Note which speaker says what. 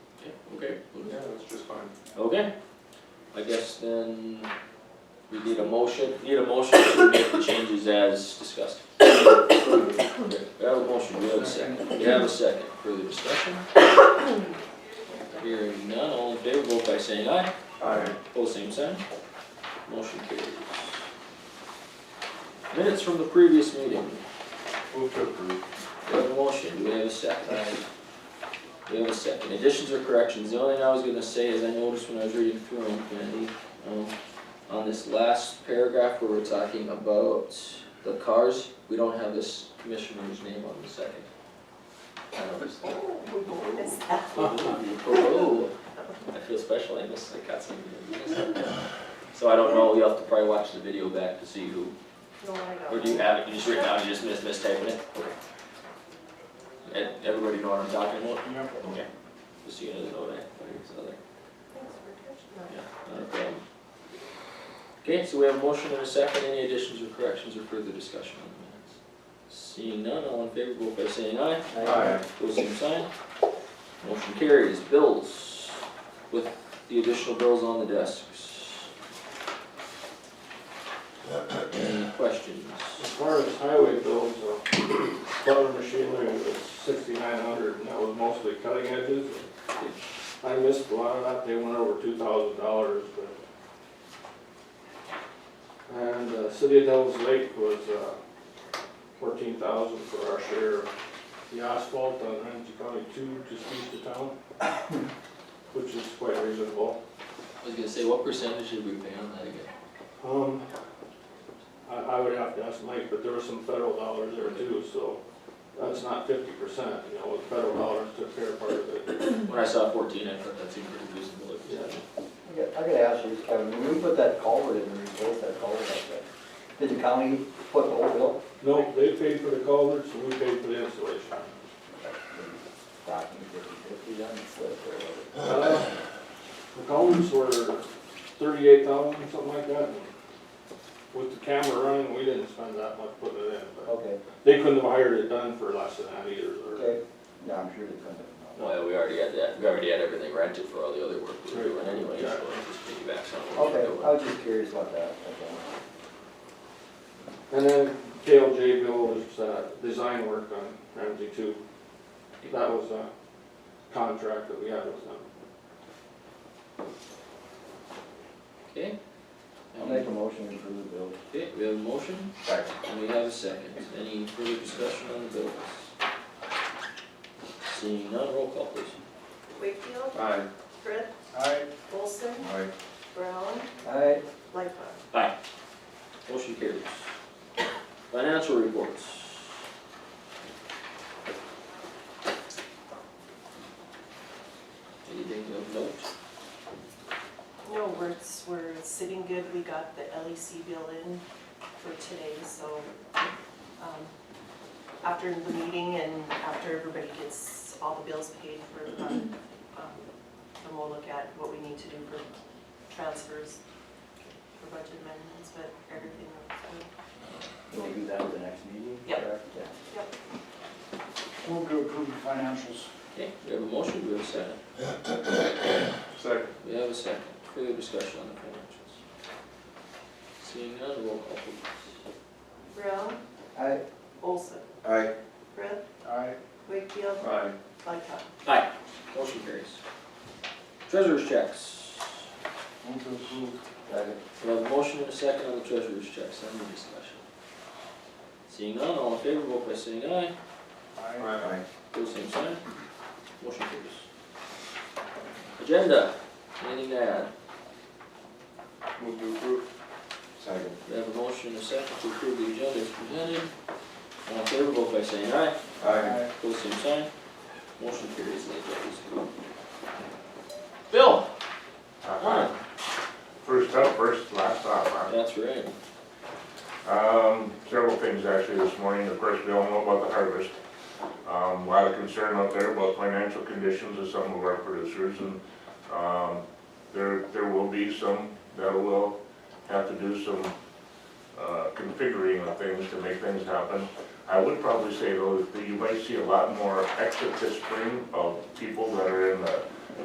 Speaker 1: Okay, I guess then we need a motion, need a motion to make the changes as discussed. Okay, We have a motion, we have a second, we have a second, further discussion? Hearing none, all in favor, vote by saying aye,
Speaker 2: Aye.
Speaker 1: Both same sign, motion carries. Minutes from the previous meeting,
Speaker 2: Move to approve.
Speaker 1: we have a motion, do we have a second? We have a second, additions or corrections, the only thing I was gonna say is I noticed when I was reading through them, Kennedy, um, on this last paragraph where we're talking about the cars, we don't have this commissioner's name on the second. I noticed that. Oh, I feel special, I missed, I got something. I missed. So I don't know, you'll have to probably watch the video back to see who,
Speaker 3: No, I
Speaker 1: or do you have it, you just written out, you just mis mistyping it? And everybody know what I'm talking about? Okay, just so you guys know that, there's another. Not a problem. Okay, so we have a motion and a second, any additions or corrections or further discussion on the minutes? Seeing none, all in favor, vote by saying aye,
Speaker 2: Aye.
Speaker 1: pose same sign. Motion carries, bills, with the additional bills on the desks. Any questions?
Speaker 4: As far as highway bills, uh, plow machinery was sixty-nine hundred, and that was mostly cutting edges. I missed a lot of that, they went over two thousand dollars, but. And, uh, City of Devils Lake was, uh, fourteen thousand for our share. of The asphalt on Ramsey County two, just east of town, which is quite reasonable.
Speaker 1: I was gonna say, what percentage did we pay on that again?
Speaker 4: Um, I, I would have to ask Mike, but there was some federal dollars there too, so that's not fifty percent, you know, the federal dollars took care of part of it.
Speaker 1: When I saw fourteen, I thought that seemed pretty reasonable.
Speaker 4: Yeah.
Speaker 5: I got- I gotta ask you, Kevin, when we put that culvert in, and replaced that culvert up there, did the county put the whole bill?
Speaker 4: No, they paid for the culverts and we paid for the installation.
Speaker 5: Back in fifty-fifty, then it's split there, wasn't
Speaker 4: Uh, The culverts were thirty-eight thousand, something like that. and With the camera running, we didn't spend that much putting it in,
Speaker 5: it?
Speaker 4: but
Speaker 5: Okay,
Speaker 4: they couldn't have hired it done for less than that either, or,
Speaker 5: okay, yeah, I'm sure they couldn't have. known.
Speaker 1: Well, yeah, we already had that, we already had everything rented for all the other work we were doing anyway, so
Speaker 4: Right.
Speaker 1: it just piggybacks on what we were
Speaker 5: Okay,
Speaker 1: doing.
Speaker 5: I was just curious about that, okay.
Speaker 4: And then KLJ bill was, uh, design work on Ramsey two. That was a contract that we had with them.
Speaker 1: Okay?
Speaker 5: I'll make a motion to approve the bill.
Speaker 1: Okay, we have a motion,
Speaker 5: Second.
Speaker 1: and we have a second. Any further discussion on the bills? Seeing none, roll call please.
Speaker 3: Wakefield,
Speaker 2: Aye.
Speaker 3: Fritz,
Speaker 2: Aye.
Speaker 3: Olson,
Speaker 2: Aye.
Speaker 3: Brown,
Speaker 5: Aye,
Speaker 3: Lightfoot.
Speaker 1: Motion carries. Financial reports. Anything of note?
Speaker 3: No, we're, we're sitting good, we got the LEC bill in for today, so, um, after the meeting and after everybody gets all the bills paid for the month, um, then we'll look at what we need to do for transfers, for budget amendments, but everything looks good.
Speaker 5: we'll do that at the next meeting?
Speaker 3: Yep.
Speaker 5: correct? Yeah.
Speaker 6: Move to approve the financials.
Speaker 1: Okay, we have a motion, we have a second.
Speaker 2: Second.
Speaker 1: We have a second. Further discussion on the financials? Seeing none, roll call please.
Speaker 3: Brown,
Speaker 5: Aye,
Speaker 3: Olson,
Speaker 2: Aye.
Speaker 3: Brett,
Speaker 6: Aye.
Speaker 3: Wakefield,
Speaker 2: Aye.
Speaker 3: Lightfoot.
Speaker 1: Aye. Motion carries. Treasurer's checks.
Speaker 6: Move to approve.
Speaker 5: second.
Speaker 1: We have a motion and a second on the treasurer's checks, any discussion? Seeing none, all in favor, vote by saying aye,
Speaker 6: Aye.
Speaker 2: Aye.
Speaker 1: pose same sign, motion carries. Agenda, anything to add?
Speaker 2: Move to approve. Second.
Speaker 1: We have a motion and a second to approve the agenda as presented, all in favor, vote by saying aye,
Speaker 2: Aye.
Speaker 1: pose same sign, motion carries, ladies and gentlemen. Bill,
Speaker 7: Uh, First up, first, last off, huh?
Speaker 1: that's right,
Speaker 7: Um, several things actually this morning, of course, we all know about the harvest. Um, a lot of concern out there about financial conditions of some of our producers, and, um, there, there will be some that will have to do some, uh, configuring of things to make things happen. I would probably say though, that you might see a lot more exit this spring of people that are in the